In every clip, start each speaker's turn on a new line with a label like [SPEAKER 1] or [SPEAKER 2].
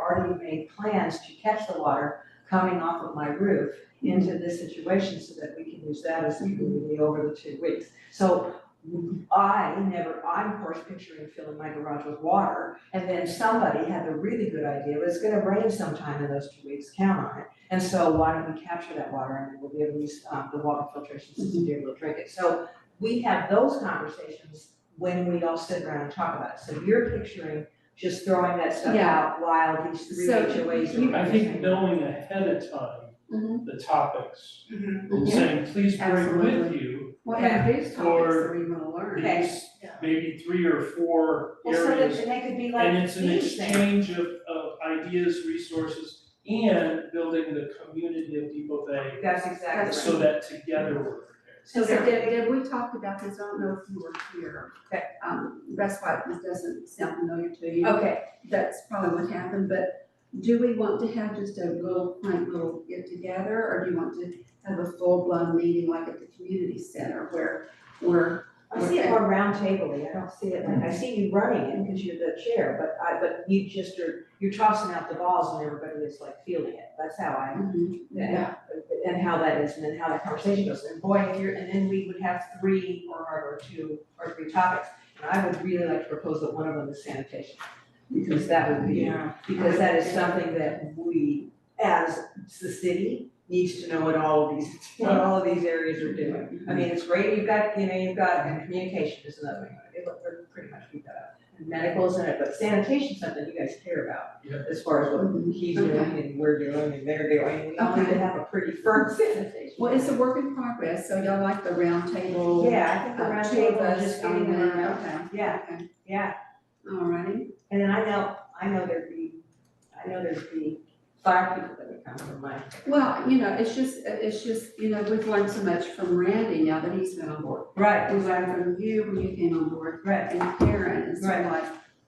[SPEAKER 1] already made plans to catch the water coming off of my roof into this situation so that we can use that as the over the two weeks. So I never, I'm of course picturing filling my garage with water, and then somebody had the really good idea, but it's gonna rain sometime in those two weeks, count on it. And so why don't we capture that water and then we'll be able to use, um, the water filtration system to be able to drink it. So we have those conversations when we all sit around and talk about it. So you're picturing just throwing that stuff
[SPEAKER 2] Yeah.
[SPEAKER 1] out while these three
[SPEAKER 2] So
[SPEAKER 1] HOAs are.
[SPEAKER 2] you-
[SPEAKER 3] I think knowing ahead of
[SPEAKER 1] Mm-hmm.
[SPEAKER 3] time the topics, and saying, please bring with
[SPEAKER 4] Absolutely.
[SPEAKER 3] you
[SPEAKER 4] What are these topics
[SPEAKER 3] Or-
[SPEAKER 4] that we wanna learn?
[SPEAKER 1] Okay.
[SPEAKER 3] these, maybe three or four
[SPEAKER 1] Well, so that
[SPEAKER 3] areas.
[SPEAKER 1] they could be
[SPEAKER 3] And
[SPEAKER 1] like
[SPEAKER 3] it's an
[SPEAKER 1] these things.
[SPEAKER 3] exchange of, of ideas, resources, and building the community of people they,
[SPEAKER 1] That's exactly right.
[SPEAKER 4] That's
[SPEAKER 3] so that together we're prepared.
[SPEAKER 4] So
[SPEAKER 1] So-
[SPEAKER 4] did, did we talk about this, I don't know if you were here.
[SPEAKER 1] Okay.
[SPEAKER 4] Um, that's why this doesn't sound familiar to you.
[SPEAKER 1] Okay,
[SPEAKER 4] That's probably what happened, but do we want to have just a little, like, little get together, or do you want to have a full-blown meeting like at the community center where, where,
[SPEAKER 1] I see it more roundtably, I don't see it like, I see you running it because you're the chair, but I, but you just are, you're tossing out the balls and everybody is like feeling it, that's how I,
[SPEAKER 4] yeah,
[SPEAKER 1] and how that is, and then how that conversation goes, and boy, if you're, and then we would have three or, or two or three topics. And I would really like to propose that one of them is sanitation, because that would be, because that is something that we, as the city, needs to know what all of these, what all of these areas are doing. I mean, it's great, you've got, you know, you've got, and communication is another one, it, look, we're pretty much, we've got, and medical's in it, but sanitation's something you guys care about.
[SPEAKER 3] Yeah.
[SPEAKER 1] As far as what he's doing and we're doing and they're doing, we all need to have a pretty firm sanitation.
[SPEAKER 4] Well, it's a work in progress, so y'all like the roundtable?
[SPEAKER 1] Yeah, I think the
[SPEAKER 4] uh,
[SPEAKER 1] round
[SPEAKER 4] two of
[SPEAKER 1] table is
[SPEAKER 4] us
[SPEAKER 1] just
[SPEAKER 4] on
[SPEAKER 1] getting
[SPEAKER 4] there,
[SPEAKER 1] around.
[SPEAKER 4] Okay,
[SPEAKER 1] Yeah,
[SPEAKER 4] okay,
[SPEAKER 1] yeah,
[SPEAKER 4] all righty,
[SPEAKER 1] and then I know, I know there'd be, I know there'd be five people that would come from my,
[SPEAKER 4] well, you know, it's just, it's just, you know, we've learned so much from Randy now that he's been on board.
[SPEAKER 1] right,
[SPEAKER 4] We learned from you when you came on board,
[SPEAKER 1] right,
[SPEAKER 4] and Karen, and so I'm like,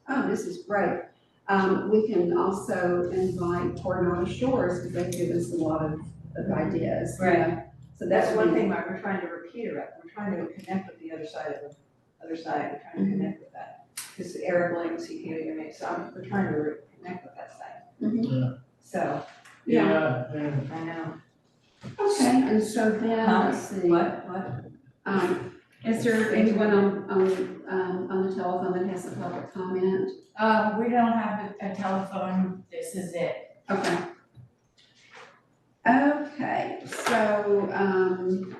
[SPEAKER 4] oh, this is great. Um, we can also invite Coronado Shores, because they've given us a lot of, of ideas, you
[SPEAKER 1] Mm-hmm. Right.
[SPEAKER 4] know. So
[SPEAKER 1] That's
[SPEAKER 4] that's
[SPEAKER 1] one thing, Mark, we're trying to repeat about, we're trying to connect with the other side of the, other side, we're trying to connect with that. Cause Eric Williams, he came to your meeting, so I'm, we're trying to re- connect with that side.
[SPEAKER 4] Mhm.
[SPEAKER 3] Yeah.
[SPEAKER 1] So,
[SPEAKER 4] Yeah.
[SPEAKER 3] and
[SPEAKER 1] I know.
[SPEAKER 4] Okay, and so then,
[SPEAKER 1] Huh?
[SPEAKER 4] let's see.
[SPEAKER 1] What, what?
[SPEAKER 4] Um, is there anyone on, on, um, on the telephone that has a public comment?
[SPEAKER 2] Uh, we don't have a a telephone, this is it.
[SPEAKER 4] Okay. Okay, so, um,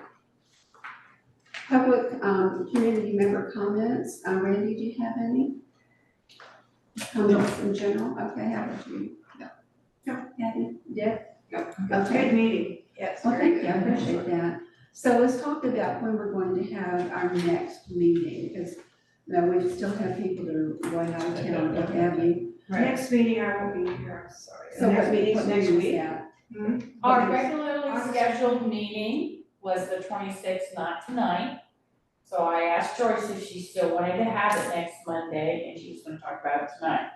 [SPEAKER 4] public, um, community member comments, uh, Randy, do you have any? Comments in general, okay, how about you? No. No, Kathy? Yeah?
[SPEAKER 1] No.
[SPEAKER 4] Okay.
[SPEAKER 1] meeting. Yes,
[SPEAKER 4] Well, thank you, I appreciate that. So let's talk about when we're going to have our next meeting, because, you know, we still have people that are way out of town, what have you.
[SPEAKER 1] Right.
[SPEAKER 5] Next meeting, I will be here, I'm sorry.
[SPEAKER 4] So
[SPEAKER 1] next
[SPEAKER 4] what-
[SPEAKER 1] meeting's
[SPEAKER 4] what
[SPEAKER 1] next
[SPEAKER 4] date is
[SPEAKER 1] week?
[SPEAKER 4] that?
[SPEAKER 5] Hmm?
[SPEAKER 4] What
[SPEAKER 2] Our
[SPEAKER 4] is-
[SPEAKER 2] regularly scheduled meeting was the twenty-sixth, not tonight. So I asked Joyce if she still wanted to have it next Monday, and she's gonna talk about it tonight.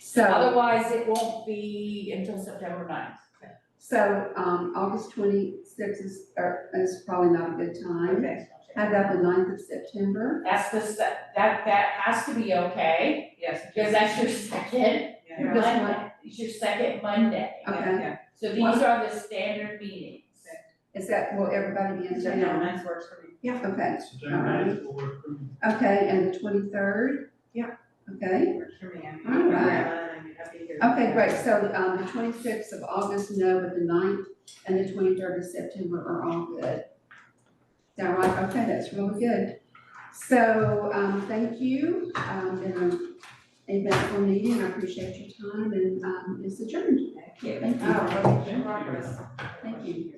[SPEAKER 4] So,
[SPEAKER 2] Otherwise, it won't be until September 9th.
[SPEAKER 4] so, um, August twenty-sixth is, or, is probably not a good time.
[SPEAKER 1] Okay,
[SPEAKER 4] How about the 9th of September?
[SPEAKER 2] That's the, se- that, that has to be okay,
[SPEAKER 1] yes.
[SPEAKER 2] because that's your second
[SPEAKER 1] Yeah,
[SPEAKER 4] This one?
[SPEAKER 2] Monday, it's your second Monday.
[SPEAKER 1] yeah,
[SPEAKER 4] Okay.
[SPEAKER 1] yeah.
[SPEAKER 2] So these are the standard meetings.
[SPEAKER 4] Is that, will everybody be in
[SPEAKER 1] September
[SPEAKER 4] town?
[SPEAKER 1] ninth works for me.
[SPEAKER 4] Okay,
[SPEAKER 3] September ninth will work for me.
[SPEAKER 4] okay, and the twenty-third?
[SPEAKER 5] Yeah.
[SPEAKER 4] Okay.
[SPEAKER 1] Works for me, I'm,
[SPEAKER 4] All
[SPEAKER 1] I'm,
[SPEAKER 4] right.
[SPEAKER 1] I'm happy here.
[SPEAKER 4] Okay, great, so, um, the twenty-sixth of August, no, but the 9th and the twenty-third of September are all good. Is that right? Okay, that's really good. So, um, thank you, um, been a eventful meeting, I appreciate your time, and, um, it's adjourned.
[SPEAKER 1] Thank you.
[SPEAKER 4] Thank you.
[SPEAKER 5] Oh, well, progress.
[SPEAKER 4] Thank you.